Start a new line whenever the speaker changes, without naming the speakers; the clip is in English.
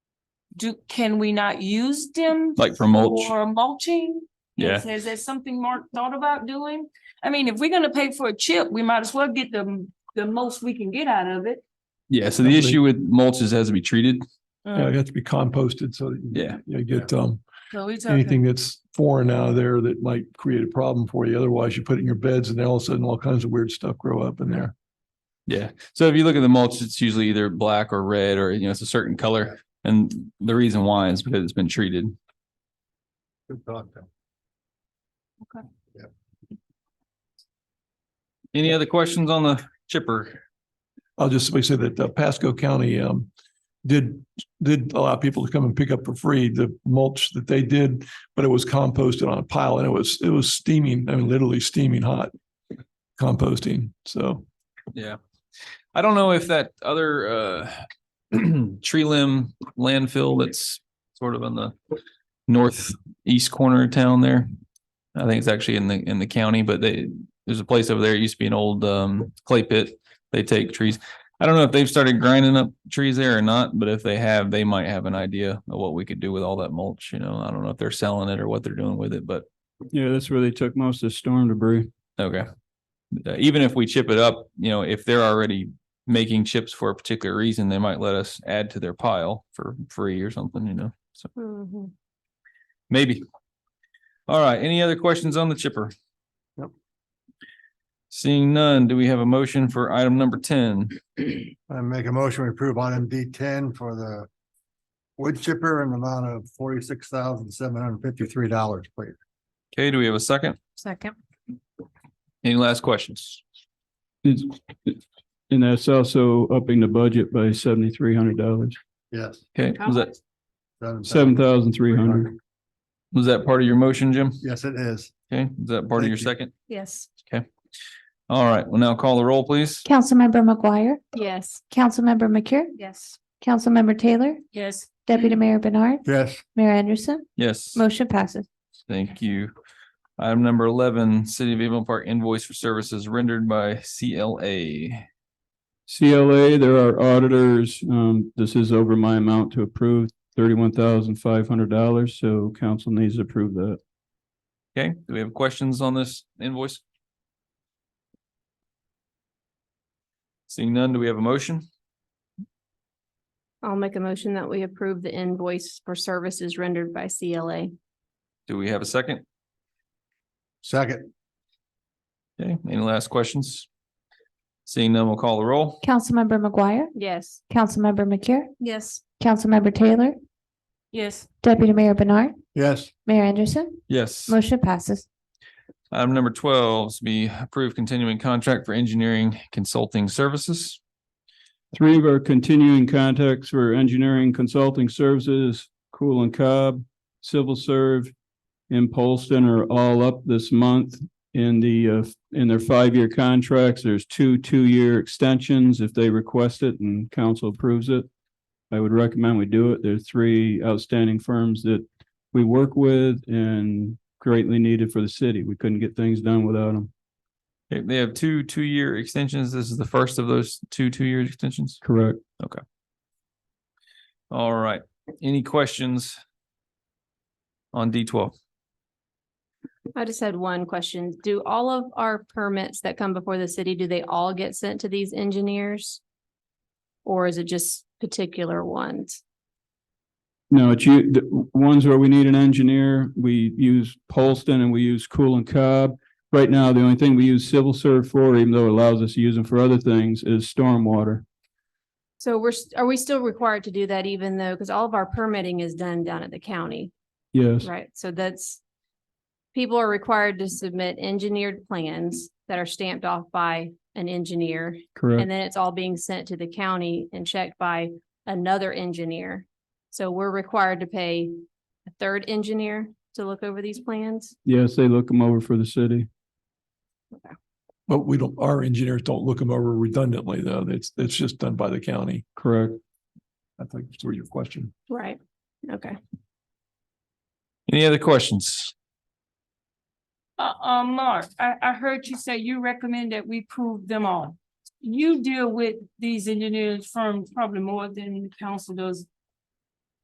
do, can we not use them
like for mulch.
for mulching?
Yeah,
Is is that something Mark thought about doing? I mean, if we're gonna pay for a chip, we might as well get the, the most we can get out of it.
yeah. So the issue with mulch is it has to be treated.
Uh,
Yeah, it has to be composted so that you-
Yeah.
you get um
So we talking,
anything that's foreign out of there that might create a problem for you. Otherwise, you put it in your beds and then all of a sudden all kinds of weird stuff grow up in there.
Yeah. So if you look at the mulch, it's usually either black or red or, you know, it's a certain color. And the reason why is because it's been treated.
Good thought, though.
Any other questions on the chipper?
I'll just simply say that uh, Pasco County um did did allow people to come and pick up for free the mulch that they did, but it was composted on a pile and it was it was steaming, I mean literally steaming hot composting. So
Yeah. I don't know if that other uh tree limb landfill that's sort of on the northeast corner of town there. I think it's actually in the in the county, but they there's a place over there. It used to be an old um clay pit. They take trees. I don't know if they've started grinding up trees there or not, but if they have, they might have an idea of what we could do with all that mulch, you know. I don't know if they're selling it or what they're doing with it, but
Yeah, that's where they took most of the storm debris.
Okay. Uh, Even if we chip it up, you know, if they're already making chips for a particular reason, they might let us add to their pile for free or something, you know, so
Mhm.
maybe. All right, any other questions on the chipper?
Nope.
Seeing none, do we have a motion for item number ten?
I make a motion, we approve item D ten for the wood chipper in the amount of forty-six thousand, seven hundred and fifty-three dollars, please.
Okay, do we have a second?
second,
Any last questions?
It's, and that's also upping the budget by seventy-three hundred dollars,
Yes.
Okay,
How
was that,
seven thousand three hundred.
was that part of your motion, Jim?
Yes, it is.
Okay, is that part of
Thank
your
you.
second?
yes.
All right, well now call the roll, please.
Councilmember McGuire,
Yes.
Councilmember McCure,
Yes.
Councilmember Taylor,
Yes.
Deputy Mayor Bernard,
Yes,
Mayor Anderson,
Yes.
motion passes.
Thank you. Item number eleven, City of Avon Park invoice for services rendered by CLA.
CLA, there are auditors. Um, this is over my amount to approve, thirty-one thousand five hundred dollars, so council needs to approve that.
Okay, do we have questions on this invoice? Seeing none, do we have a motion?
I'll make a motion that we approve the invoice for services rendered by CLA.
Do we have a second?
second,
Okay, any last questions? Seeing none, we'll call the roll.
Councilmember McGuire,
Yes.
Councilmember McCure,
Yes.
Councilmember Taylor,
Yes.
Deputy Mayor Bernard,
yes,
Mayor Anderson,
Yes.
motion passes.
Item number twelve is to be approved continuing contract for engineering consulting services.
Three of our continuing contacts for engineering consulting services, Cool and Cobb, Civil Serve, and Polston are all up this month in the, uh, in their five-year contracts. There's two two-year extensions if they request it and council approves it. I would recommend we do it. There are three outstanding firms that we work with and greatly needed for the city. We couldn't get things done without them.
Okay, They have two two-year extensions. This is the first of those two two-year extensions.
Correct.
All right, any questions? On D twelve,
I just had one question. Do all of our permits that come before the city, do they all get sent to these engineers? Or is it just particular ones?
No, it's you, the ones where we need an engineer, we use Polston and we use Cool and Cobb. Right now, the only thing we use civil serve for, even though it allows us to use them for other things, is stormwater.
So we're, s- are we still required to do that even though, because all of our permitting is done down at the county,
Yes,
right? So that's people are required to submit engineered plans that are stamped off by an engineer
correct.
And then it's all being sent to the county and checked by another engineer. So we're required to pay a third engineer to look over these plans?
Yes, they look them over for the city.
but we don't, our engineers don't look them over redundantly though. It's it's just done by the county.
Correct.
I think that's where your question.
Right. Okay.
any other questions?
Uh, uh, Mark, I, I heard you say you recommend that we prove them all. You deal with these engineers firms probably more than the council does